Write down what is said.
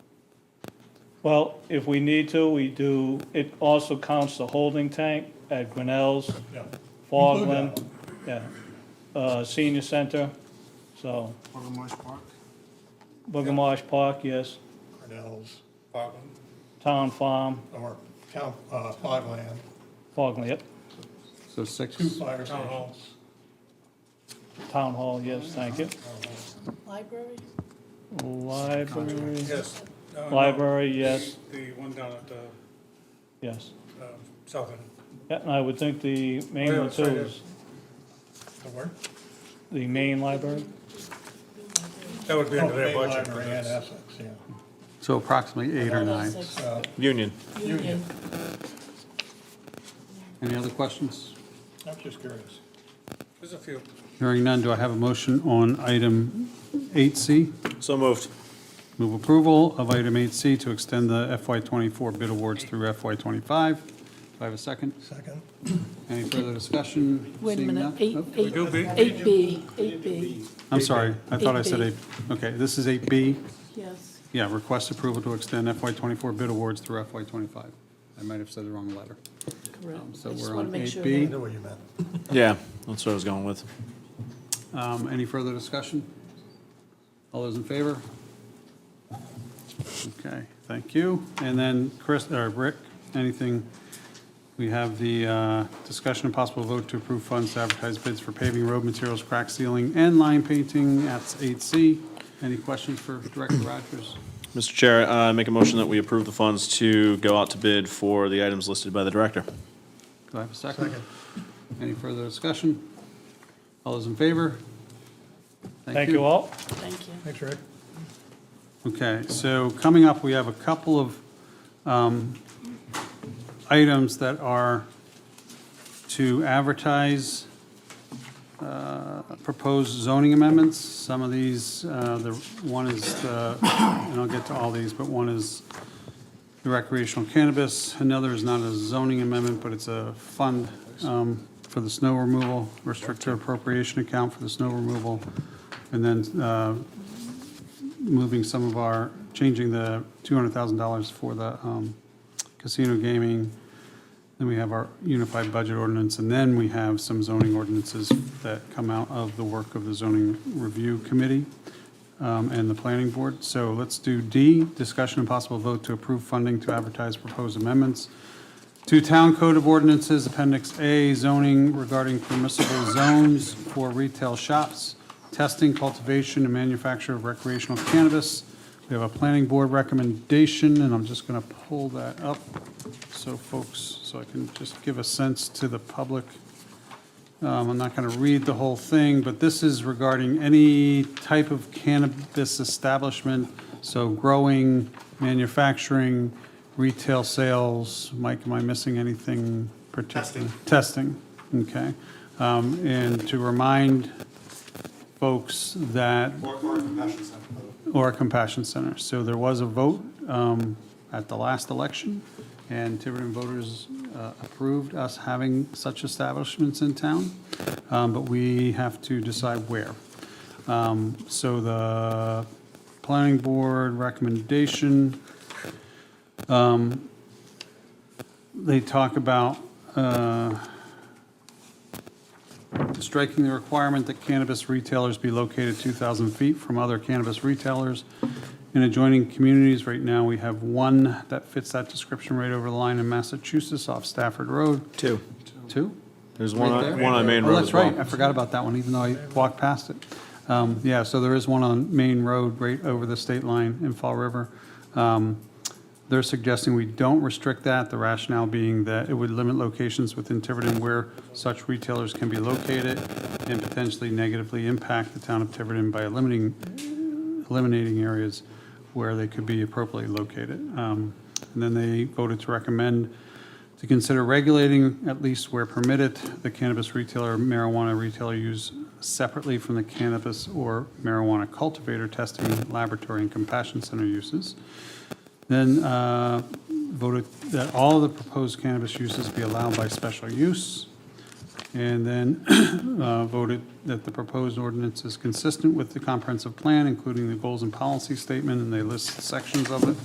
Well, if we need to, we do, it also counts the holding tank at Grinnell's, Yeah. Fogland, yeah, uh, senior center, so, Watermarsh Park. Boogamosh Park, yes, Cornell's, Fogland, Town Farm, or Town, uh, Fogland, Fogland, yep, So six, two fire stations. Town Hall, yes, thank you. Library? Library, Yes. No, no, library, yes, The one down at the yes. um, south end. Yeah, And I would think the main Oh, yeah, one too sorry, yeah. is The where? the main library, That would be under their Bay budget. but Library and that's- Essex, yeah. so approximately eight or nine. Uh, Union. Union. Any other questions? I'm just curious. There's a few. Hearing none, do I have a motion on item 8C? So moved. Move approval of item 8C to extend the FY24 bid awards through FY25. Do I have a second? Second? Any further discussion? Wait a Seeing minute, none? eight, Oh, eight, do B? eight B, eight B, I'm sorry, I thought I said 8B. 8, okay, this is 8B. yes. Yeah, request approval to extend FY24 bid awards through FY25. I might have said the wrong letter. Correct. Um, so I just we're wanna on make sure 8B. I that- knew what you meant. Yeah, that's what I was going with. Um, Any further discussion? All those in favor? Okay, thank you. And then Chris, or Rick, anything? We have the uh, discussion and possible vote to approve funds to advertise bids for paving, road materials, crack sealing, and line painting. That's 8C. Any questions for Director Rogers? Mr. Chair, I make a motion that we approve the funds to go out to bid for the items listed by the director. Do I have a second? Any further discussion? All those in favor? thank you all. Thank you. Thanks, Rick. Okay, so coming up, we have a couple of um, items that are to advertise uh, proposed zoning amendments. Some of these, uh, the, one is, uh, and I'll get to all these, but one is the recreational cannabis. Another is not a zoning amendment, but it's a fund um, for the snow removal, restricted appropriation account for the snow removal. And then uh, moving some of our, changing the $200,000 for the um, casino gaming. Then we have our unified budget ordinance, and then we have some zoning ordinances that come out of the work of the zoning review committee um, and the planning board. So let's do D, discussion and possible vote to approve funding to advertise proposed amendments to Town Code of Ordinances, Appendix A, zoning regarding permissible zones for retail shops, testing, cultivation, and manufacture of recreational cannabis. We have a planning board recommendation, and I'm just going to pull that up so folks, so I can just give a sense to the public. Um, I'm not going to read the whole thing, but this is regarding any type of cannabis establishment, so growing, manufacturing, retail sales. Mike, am I missing anything particular? Testing. Testing, okay. Um, And to remind folks that Or, or a compassion center, by the way. or a compassion center. So there was a vote um, at the last election, and Tiverton voters uh, approved us having such establishments in town, um, but we have to decide where. Um, So the planning board recommendation, um, they talk about, uh, striking the requirement that cannabis retailers be located 2,000 feet from other cannabis retailers in adjoining communities. Right now, we have one that fits that description right over the line in Massachusetts off Stafford Road. Two. Two? There's one, Right there. on- one on Main Oh, Road that's as well. right, I forgot about that one, even though I walked past it. Um, Yeah, so there is one on Main Road right over the state line in Fall River. Um, They're suggesting we don't restrict that, the rationale being that it would limit locations within Tiverton where such retailers can be located and potentially negatively impact the town of Tiverton by limiting eliminating areas where they could be appropriately located. Um, And then they voted to recommend to consider regulating, at least where permitted, the cannabis retailer, marijuana retailer use separately from the cannabis or marijuana cultivator testing laboratory and compassion center uses. Then uh, voted that all of the proposed cannabis uses be allowed by special use. And then uh, voted that the proposed ordinance is consistent with the comprehensive plan, including the goals and policy statement, and they list sections of it.